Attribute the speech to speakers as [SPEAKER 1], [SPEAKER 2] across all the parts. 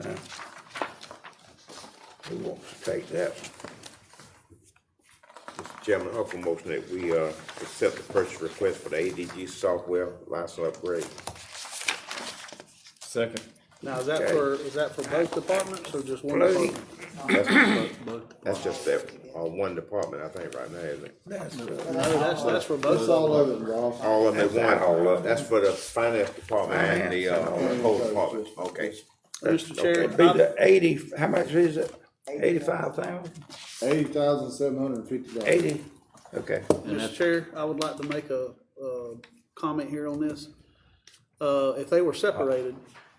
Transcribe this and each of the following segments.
[SPEAKER 1] Now, Who wants to take that?
[SPEAKER 2] Mr. Chairman, I offer a motion that we, uh, accept the purchase request for the ADG software license upgrade.
[SPEAKER 3] Second.
[SPEAKER 4] Now, is that
[SPEAKER 2] Okay.
[SPEAKER 4] for, is that for both departments or just one
[SPEAKER 2] Well,
[SPEAKER 4] department?
[SPEAKER 2] That's just that, on one department, I think, right now, isn't it?
[SPEAKER 1] That's, uh,
[SPEAKER 4] No, that's, that's for both
[SPEAKER 5] That's
[SPEAKER 4] of
[SPEAKER 5] all
[SPEAKER 4] them.
[SPEAKER 5] of it, Ross.
[SPEAKER 2] All of them at one, all of, that's for the finance department and the, uh, whole department, okay.
[SPEAKER 4] Mr.
[SPEAKER 2] Okay.
[SPEAKER 1] it'd be
[SPEAKER 4] Chair,
[SPEAKER 1] the eighty, how much is it? Eighty-five thousand?
[SPEAKER 5] Eighty thousand seven hundred and fifty dollars.
[SPEAKER 1] Eighty? Okay.
[SPEAKER 4] I- Mr. Chair, I would like to make a, uh comment here on this. Uh, if they were separated,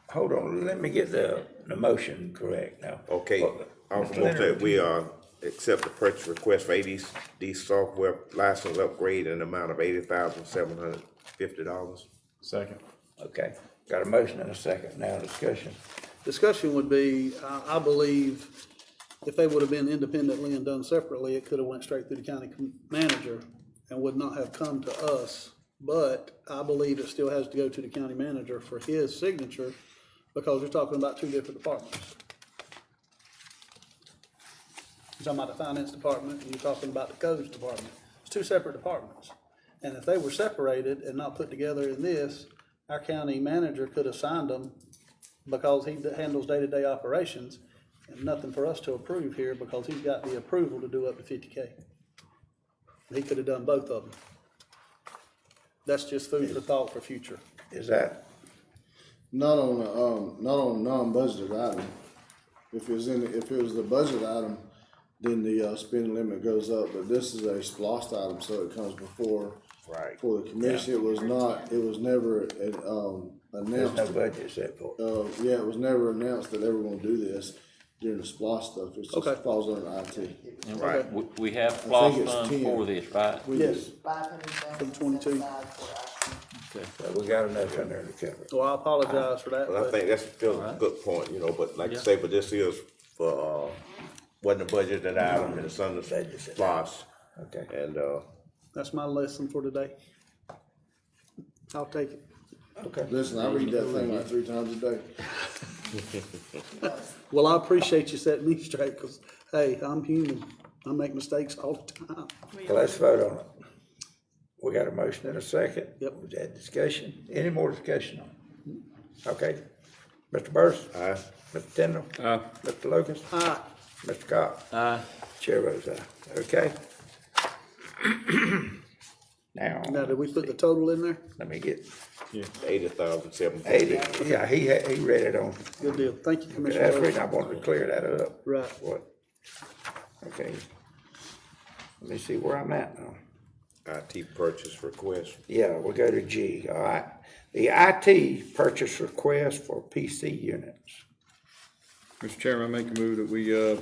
[SPEAKER 1] Hold on, let me get the, the motion correct now.
[SPEAKER 2] Okay, I offer a motion that we, uh, accept the purchase request for ADD software license upgrade in the amount of eighty thousand, seven hundred fifty dollars.
[SPEAKER 3] Second.
[SPEAKER 1] Okay, got a motion and a second now, discussion.
[SPEAKER 4] discussion would be, I, I believe, if they would have been independently and done separately, it could have went straight through the county com- manager and would not have come to us. But I believe it still has to go to the county manager for his signature because you're talking about two different departments. You're talking about the finance department and you're talking about the codes department. It's two separate departments. And if they were separated and not put together in this, our county manager could have signed them because he handles day-to-day operations, and nothing for us to approve here because he's got the approval to do up to fifty K. He could have done both of them. That's just food for thought for future.
[SPEAKER 1] Is that,
[SPEAKER 5] Not on a, um, not on a non-budgeted item. If it was in, if it was the budget item, then the, uh, spending limit goes up, but this is a splost item, so it comes before.
[SPEAKER 2] Right.
[SPEAKER 5] For the commission, it was not, it was never, uh, um,
[SPEAKER 1] there's no
[SPEAKER 5] announced,
[SPEAKER 1] budget set for it?
[SPEAKER 5] uh, yeah, it was never announced that they were gonna do this during the splost stuff, it
[SPEAKER 4] Okay.
[SPEAKER 5] just falls under IT.
[SPEAKER 2] Right.
[SPEAKER 6] We, we have floss
[SPEAKER 5] it's
[SPEAKER 6] funds
[SPEAKER 5] 10.
[SPEAKER 6] for this, right?
[SPEAKER 5] We
[SPEAKER 4] Yes.
[SPEAKER 7] Five hundred thousand.
[SPEAKER 4] From 22.
[SPEAKER 1] So we got enough in there to cover it.
[SPEAKER 4] So I apologize for that,
[SPEAKER 2] Well, I
[SPEAKER 4] but
[SPEAKER 2] think that's still a good point, you know, but like I say, but this is for, uh, wasn't a budgeted item, and it's under
[SPEAKER 1] Budgeted.
[SPEAKER 2] SPOS.
[SPEAKER 1] Okay,
[SPEAKER 2] And, uh,
[SPEAKER 4] that's my lesson for today. I'll take it.
[SPEAKER 1] okay.
[SPEAKER 5] Listen, I read that thing like three times a day.
[SPEAKER 4] Well, I appreciate you setting me straight, cause hey, I'm human. I make mistakes all the time.
[SPEAKER 1] Well, let's vote on it. We got a motion and a second.
[SPEAKER 4] Yep.
[SPEAKER 1] Was that discussion? Any more discussion on it? Okay. Mr. Burris? Aye. Mr. Tindall? Aye. Mr. Lucas?
[SPEAKER 4] Aye.
[SPEAKER 1] Mr. Cox? Aye. Chair votes aye. Okay. Now,
[SPEAKER 4] Now, did we put the total in there?
[SPEAKER 1] let me get
[SPEAKER 2] eighty thousand, seven
[SPEAKER 1] eighty.
[SPEAKER 2] fifty.
[SPEAKER 1] Yeah, he, had- he read it on.
[SPEAKER 4] Good deal. Thank you, Commissioner.
[SPEAKER 1] That's the
[SPEAKER 4] Rhodes.
[SPEAKER 1] reason I wanted to clear that up.
[SPEAKER 4] Right.
[SPEAKER 1] What? Okay. Let me see where I'm at now.
[SPEAKER 2] IT purchase request.
[SPEAKER 1] Yeah, we'll go to G, all right. The IT purchase request for PC units.
[SPEAKER 3] Mr. Chairman, I make a move that we, uh,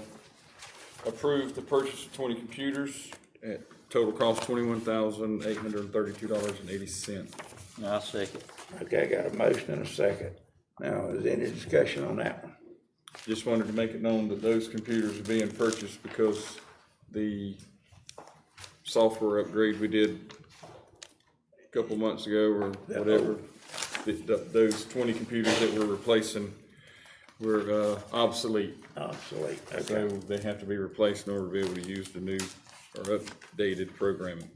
[SPEAKER 3] approve the purchase of twenty computers at total cost twenty-one thousand, eight hundred and thirty-two dollars and eighty cent.
[SPEAKER 6] And I second.
[SPEAKER 1] Okay, I got a motion and a second. Now, is there any discussion on that one?
[SPEAKER 3] Just wanted to make it known that those computers are being purchased because the software upgrade we did a couple months ago or whatever, th- th- those twenty computers that we're replacing were, uh, obsolete.
[SPEAKER 1] Obsolete,
[SPEAKER 3] So
[SPEAKER 1] okay.
[SPEAKER 3] they have to be replaced in order to be able to use the new or updated programming.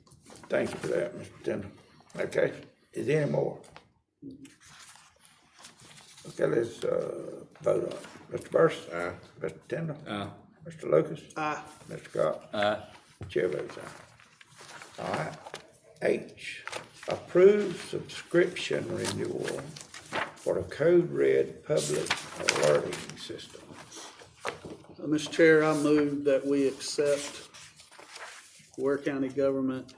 [SPEAKER 1] Thank you for that, Mr. Tindall. Okay, is there any more? Okay, let's, uh, vote on it. Mr. Burris? Aye. Mr. Tindall? Aye. Mr. Lucas? Aye. Mr. Cox?
[SPEAKER 6] Aye.
[SPEAKER 1] Chair votes aye. All right. H, approved subscription renewal for the Code Red Public Alerting System.
[SPEAKER 4] Uh, Mr. Chair, I move that we accept Ware County Government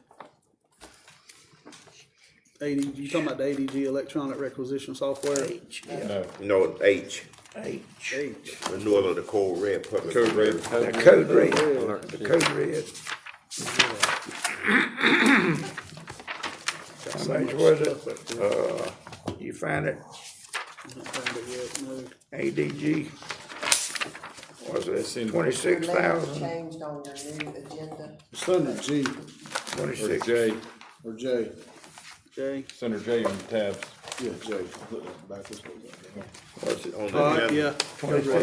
[SPEAKER 4] AD, you talking about the ADG electronic requisition software?
[SPEAKER 1] H, yeah,
[SPEAKER 3] No,
[SPEAKER 2] No, H,
[SPEAKER 1] H.
[SPEAKER 4] H.
[SPEAKER 2] renewal of the Code Red Public.
[SPEAKER 3] Code Red.
[SPEAKER 1] The Code Red, the Code Red. How much was it? Uh, you find it,
[SPEAKER 4] Not found it yet, no.
[SPEAKER 1] ADG? Was
[SPEAKER 3] It's in-
[SPEAKER 1] it twenty-six thousand,
[SPEAKER 7] Changed on your new agenda.
[SPEAKER 5] It's under G
[SPEAKER 3] Or
[SPEAKER 1] twenty-six?
[SPEAKER 3] J,
[SPEAKER 5] or J.
[SPEAKER 4] Jay,
[SPEAKER 3] Senator J on the tabs.
[SPEAKER 8] Yeah, Jay, look back this way.
[SPEAKER 5] On the
[SPEAKER 1] All right,
[SPEAKER 5] agenda.
[SPEAKER 1] yeah.
[SPEAKER 3] Uh,
[SPEAKER 4] Twenty-six.